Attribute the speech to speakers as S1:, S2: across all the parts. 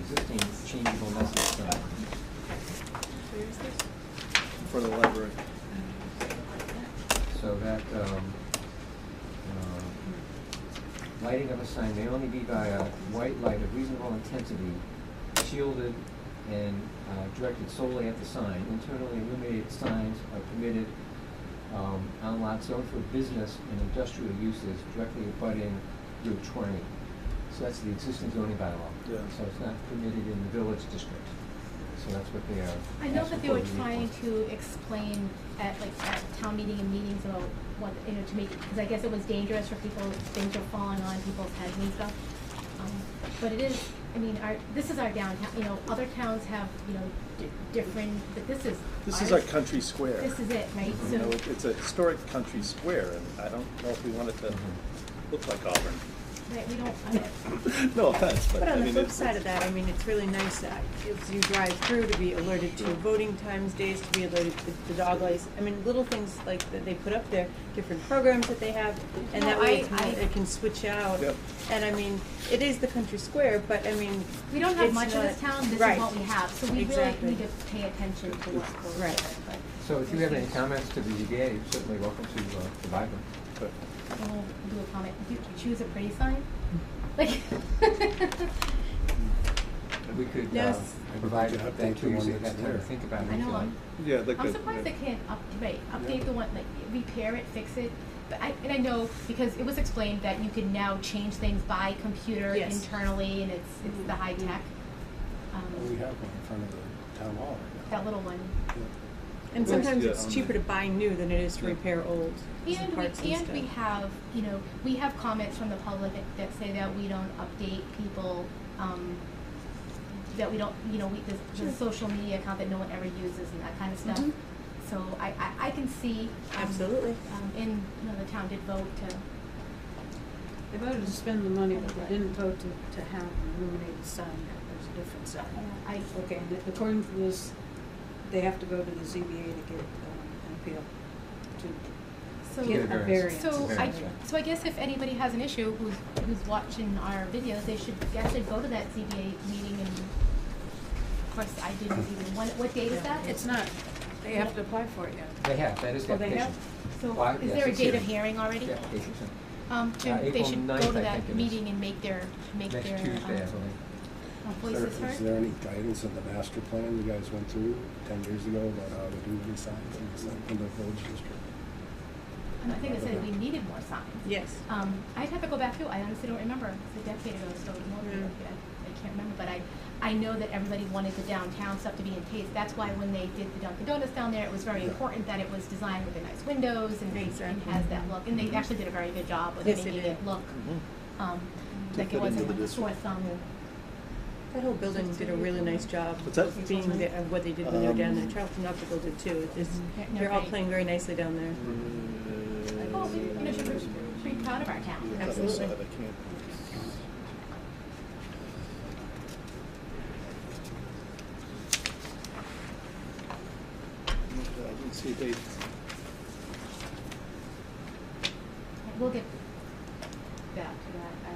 S1: existing changeable message sign.
S2: Where is this?
S3: in front of the library.
S1: So that, um, uh, lighting of a sign may only be by a white light of reasonable intensity, shielded and uh, directed solely at the sign. Internally illuminated signs are permitted um, on lots owned for business and industrial uses directly abutting Route 20. So that's the existing zoning bylaw.
S3: Yeah.
S1: So it's not permitted in the village district. So that's what they are.
S2: I know
S1: asking
S2: that they
S1: for
S2: were
S1: relief for.
S2: trying to explain at like at town meeting and meetings about what, you know, to make, because I guess it was dangerous for people, things were falling on people's heads and stuff. Um, But it is, I mean, our, this is our downtown, you know, other towns have, you know, di- different, but this is.
S3: This is
S2: ours.
S3: our country square.
S2: This is it, right?
S3: You know,
S2: So,
S3: it- it's a historic country square, and I don't know if we want it to look like Auburn.
S2: right, we don't, I don't-
S3: No offense, but
S4: But
S3: I
S4: on the
S3: mean,
S4: flip
S3: it's,
S4: side of that, I mean, it's really nice that as you drive through to be alerted to voting times, days to be alerted to the dog lice. I mean, little things like that they put up there, different programs that they have, and
S2: No,
S4: that way
S2: I- I-
S4: it's- it can switch out.
S3: Yep.
S4: And I mean, it is the country square, but I mean.
S2: we don't have
S4: it's
S2: much of this
S4: not-
S2: town, this is
S4: right.
S2: what we have, so we really
S4: Exactly.
S2: need to pay attention to what's going on.
S4: Right.
S1: So if you have any comments to the ZBA, you're certainly welcome to uh, provide them.
S3: but
S2: And we'll do a comment, do you choose a pretty sign? Like.
S1: We could uh,
S4: Yes.
S1: provide
S5: We could
S1: that
S5: update
S1: to
S5: the
S1: you,
S5: one
S1: so you
S5: that's
S1: have time to
S5: there.
S1: think about it.
S2: I
S1: if you
S2: know,
S1: like.
S2: I'm-
S3: Yeah, like
S2: I'm
S3: the-
S2: surprised they can't up, right,
S3: Yeah.
S2: update the one, like, repair it, fix it, but I, and I know, because it was explained that you can now change things by computer
S4: Yes.
S2: internally, and it's, it's the high tech.
S5: Well, We
S2: Um,
S5: have one in front of the town hall right now.
S2: that little one,
S4: And
S3: Yeah,
S4: sometimes
S3: yeah,
S4: it's
S3: on
S4: cheaper
S3: the-
S4: to buy new than it is to
S3: Yeah.
S4: repair old
S2: and
S4: parts
S2: we,
S4: and
S2: and we
S4: stuff.
S2: have, you know, we have comments from the public that- that say that we don't update people, um, that we don't, you know, we, there's, there's
S4: Sure.
S2: social media account that no one ever uses and that kind of stuff.
S4: Mhm.
S2: So I, I, I can see, um,
S4: Absolutely.
S2: um, and, you know, the town did vote to,
S6: They voted to spend the money, but they didn't vote to, to have an illuminated sign, there's a different sign.
S2: I,
S6: Okay, and according to this, they have to go to the ZBA to get um, an appeal, to
S2: so.
S1: Get
S6: get
S1: a
S6: a
S1: variance.
S6: variance.
S2: So I,
S1: Variance, yeah.
S2: so I guess if anybody has an issue who's, who's watching our videos, they should actually go to that ZBA meeting and, of course, I didn't even, what, what date is that?
S6: It's not, they have to apply for it yet.
S1: They have, that is the
S6: Oh, they
S1: application.
S6: have?
S2: So
S1: Well,
S2: is
S1: yes,
S2: there a
S1: it's
S2: date
S1: here.
S2: of hearing already?
S1: Yeah, application's in.
S2: Um,
S1: Uh,
S2: Jim, they
S1: April
S2: should
S1: 9th,
S2: go to
S1: I
S2: that
S1: think it is. meeting
S2: meeting and make their, make their,
S1: Next Tuesday, I
S2: um,
S1: believe.
S2: uh,
S5: Is
S2: voices
S5: there-
S2: heard.
S5: Is there any guidance in the master plan you guys went through ten years ago about how to do these signs in the sign- in the village district?
S2: And Um, I think they said we needed more signs.
S4: Yes.
S6: Uh,
S2: Um, I'd have to go back through, I honestly don't remember, it's a decade ago, so more than a
S4: Yeah.
S2: decade, I- I can't remember, but I, I know that everybody wanted the downtown stuff to be in taste, that's why when they did the Dunkin' Donuts down there, it was very
S5: Yeah.
S2: important that it was designed with the nice windows and, and
S4: Exactly.
S2: has that look, and they
S1: Mm-hmm.
S2: actually did a very good job with
S4: Yes, they
S2: making
S4: did.
S2: it look, um,
S3: To
S2: like
S3: fit
S2: it wasn't
S3: into
S2: like
S3: the
S2: a sore
S3: district.
S2: thumb.
S4: That whole building did a really nice job.
S3: What's that?
S4: Being the, of what they did when they were down there,
S3: Um,
S4: Charlton Optical did too. It's,
S2: No,
S4: they're all
S2: right.
S4: playing very nicely down there.
S3: Mm-hmm.
S2: Well, Oh, we, you know, should be pretty proud of our town.
S3: Yeah, that was
S4: Absolutely.
S3: sad, I can't- I didn't see a date.
S2: We'll get back to that, I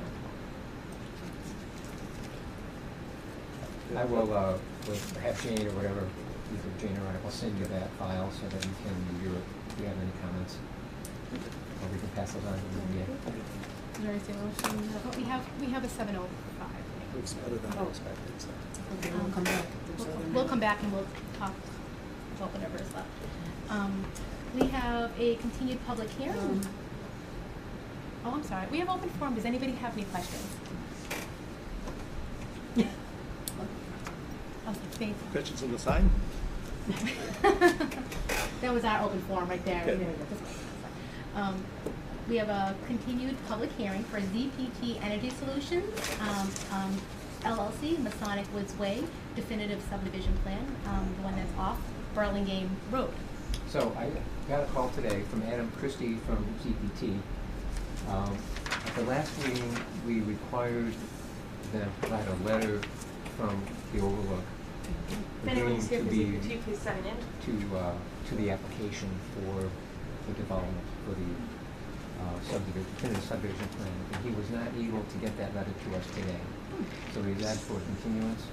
S2: don't.
S1: I will, uh, with- have Jane or whatever, either Jane or I will send you that file so that you can review it if you have any comments. Or we can pass those on to the ZBA.
S2: But we have, we have a seven oh five.
S3: Looks better than I
S6: Oh.
S3: expected, so.
S6: Okay, we'll come back. if there's
S2: We'll-
S6: other
S2: We'll
S6: news.
S2: come back and we'll talk about whatever is left. Um, we have a continued public hearing.
S6: Um,
S2: Oh, I'm sorry, we have open forum, does anybody have any questions? Okay,
S3: Questions on the sign?
S2: thanks. That was our open forum right there.
S3: Okay.
S2: Um, we have a continued public hearing for ZPT Energy Solutions, um, um, LLC, Masonic Woods Way definitive subdivision plan, um, the one that's off Burlingame Road.
S1: So I got a call today from Adam Christie from CPT. Um, At the last meeting, we required them to provide a letter from the overlook. agreeing to be-
S4: please sign in?
S1: To, uh, to the application for the development, for the uh, subdivision, definitive subdivision plan. And he was not able to get that letter to us today. So we asked for a continuance.